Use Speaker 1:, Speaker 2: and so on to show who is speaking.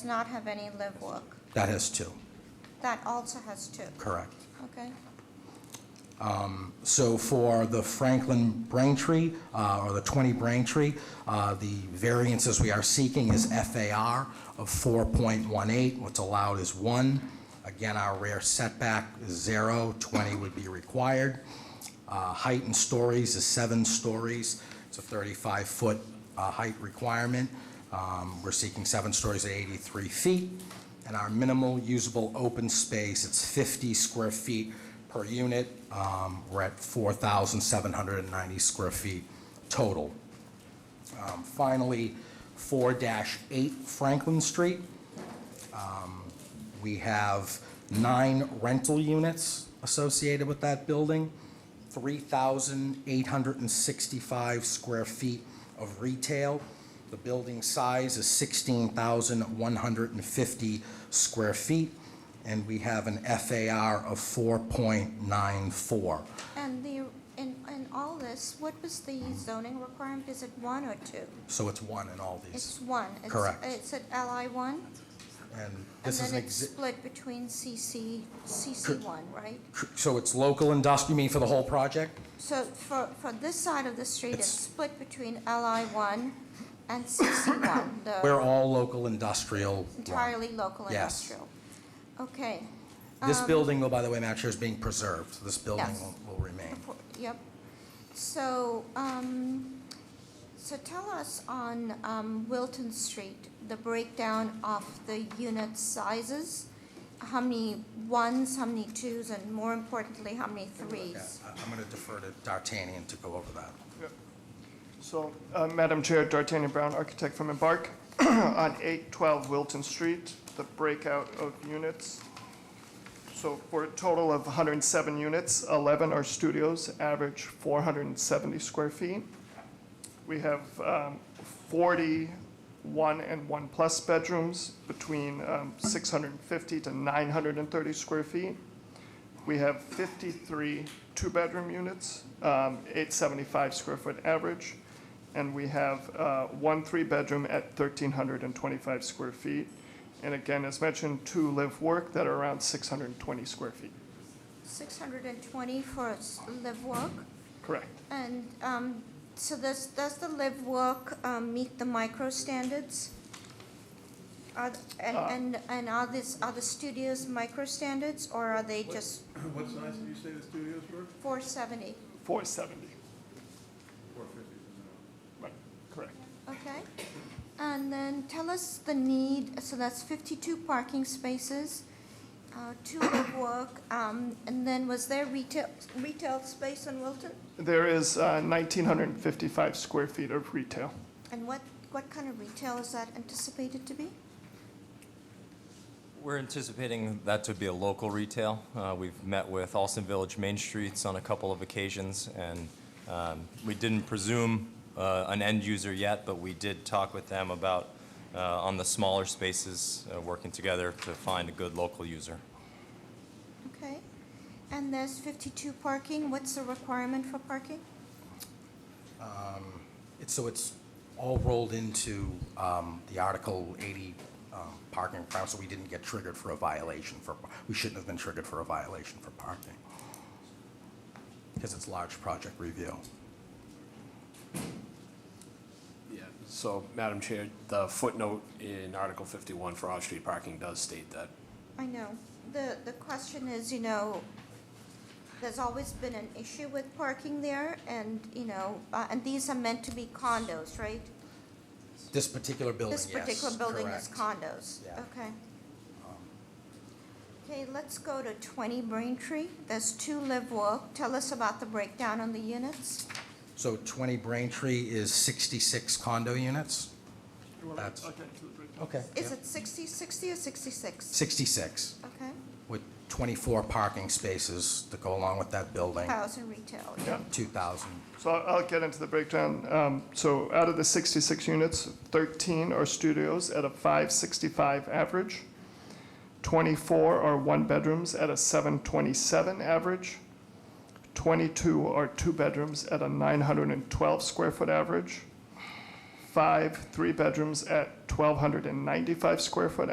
Speaker 1: does not have any live work.
Speaker 2: That has two,
Speaker 1: That also has two.
Speaker 2: correct.
Speaker 1: Okay.
Speaker 2: So for the Franklin Braintree, uh, or the 20 Braintree, uh, the variances we are seeking is FAR of 4.18, what's allowed is 1. Again, our rear setback is 0, 20 would be required. Uh, Height in stories is 7 stories, it's a 35-foot height requirement. Um, We're seeking 7 stories at 83 feet, and our minimal usable open space, it's 50 square feet per unit. Um, We're at 4,790 square feet total. Um, Finally, 4-8 Franklin Street. Um, We have nine rental units associated with that building, 3,865 square feet of retail. The building size is 16,150 square feet, and we have an FAR of 4.94.
Speaker 1: And the, in, in all this, what was the zoning requirement? Is it one or two?
Speaker 2: So it's one in all these.
Speaker 1: It's one. It's-
Speaker 2: Correct.
Speaker 1: It's at LI one?
Speaker 2: And this is
Speaker 1: And
Speaker 2: an
Speaker 1: then it's
Speaker 2: exi-
Speaker 1: split between CC, CC one, right?
Speaker 2: So it's local industrial, you mean for the whole project?
Speaker 1: So for, for this side of the street, it's
Speaker 2: It's-
Speaker 1: split between LI one and CC one, the
Speaker 2: We're all local industrial.
Speaker 1: Uh, entirely local
Speaker 2: Yes.
Speaker 1: industrial. Okay,
Speaker 2: This building, will, by the way, Madam Chair, is being preserved. This building
Speaker 1: Um, Yes.
Speaker 2: will- will remain.
Speaker 1: Before- Yep. So, um, so tell us on, um, Wilton Street, the breakdown of the unit sizes. How many ones, how many twos, and more importantly, how many
Speaker 2: Yeah,
Speaker 1: threes?
Speaker 2: I- I'm going to defer to D'Artagnan to go over that.
Speaker 3: So, uh, Madam Chair, D'Artagnan Brown, architect from Embark, on 812 Wilton Street, the breakout of units. So for a total of 107 units, 11 are studios, average 470 square feet. We have um, 40 one and one-plus bedrooms between um, 650 to 930 square feet. We have 53 two-bedroom units, um, 875 square foot average, and we have uh, one three-bedroom at 1,325 square feet. And again, as mentioned, two live-work that are around 620 square feet.
Speaker 1: Six hundred and twenty for s- live work,
Speaker 3: Correct.
Speaker 1: and, um, so does, does the live work, um, meet the micro standards? Are, th- and, and, and are this, are the studios micro standards, or are they just
Speaker 4: What size did you say the studios were?
Speaker 1: four seventy?
Speaker 3: 470.
Speaker 4: Four fifty is
Speaker 3: Right, correct.
Speaker 1: Okay, and then tell us the need, so that's fifty-two parking spaces, uh, two live work, um, and then was there retail, retail space on Wilton?
Speaker 3: There is uh, 1,955 square feet of retail.
Speaker 1: And what, what kind of retail is that anticipated to be?
Speaker 5: We're anticipating that to be a local retail. Uh, We've met with Alston Village Main Streets on a couple of occasions, and um, we didn't presume uh, an end user yet, but we did talk with them about, uh, on the smaller spaces, uh, working together to find a good local user.
Speaker 1: Okay, and there's fifty-two parking, what's the requirement for parking?
Speaker 2: It's- So it's all rolled into um, the Article 80 um, parking requirements, so we didn't get triggered for a violation for, we shouldn't have been triggered for a violation for parking, because it's large project review.
Speaker 6: Yeah, so, Madam Chair, the footnote in Article 51 for off-street parking does state that.
Speaker 1: I know, the, the question is, you know, there's always been an issue with parking there, and, you know, uh, and these are meant to be condos, right?
Speaker 2: This particular building, yes.
Speaker 1: This particular building is
Speaker 2: correct.
Speaker 1: condos,
Speaker 2: Yeah. Um,
Speaker 1: okay. Okay, let's go to twenty Braintree, there's two live work, tell us about the breakdown on the units.
Speaker 2: So 20 Braintree is 66 condo units?
Speaker 3: You want to-
Speaker 2: That's-
Speaker 3: I'll get into the breakdown.
Speaker 2: Okay.
Speaker 1: Is it 60, 60 or sixty-six?
Speaker 2: 66,
Speaker 1: Okay,
Speaker 2: with 24 parking spaces to go along with that building,
Speaker 1: thousand retail, yeah.
Speaker 3: Yeah.
Speaker 2: 2,000.
Speaker 3: So I'll I'll get into the breakdown. Um, So out of the 66 units, 13 are studios at a 565 average, 24 are one-bedrooms at a 727 average, 22 are two-bedrooms at a 912 square foot average, five three-bedrooms at 1,295 square foot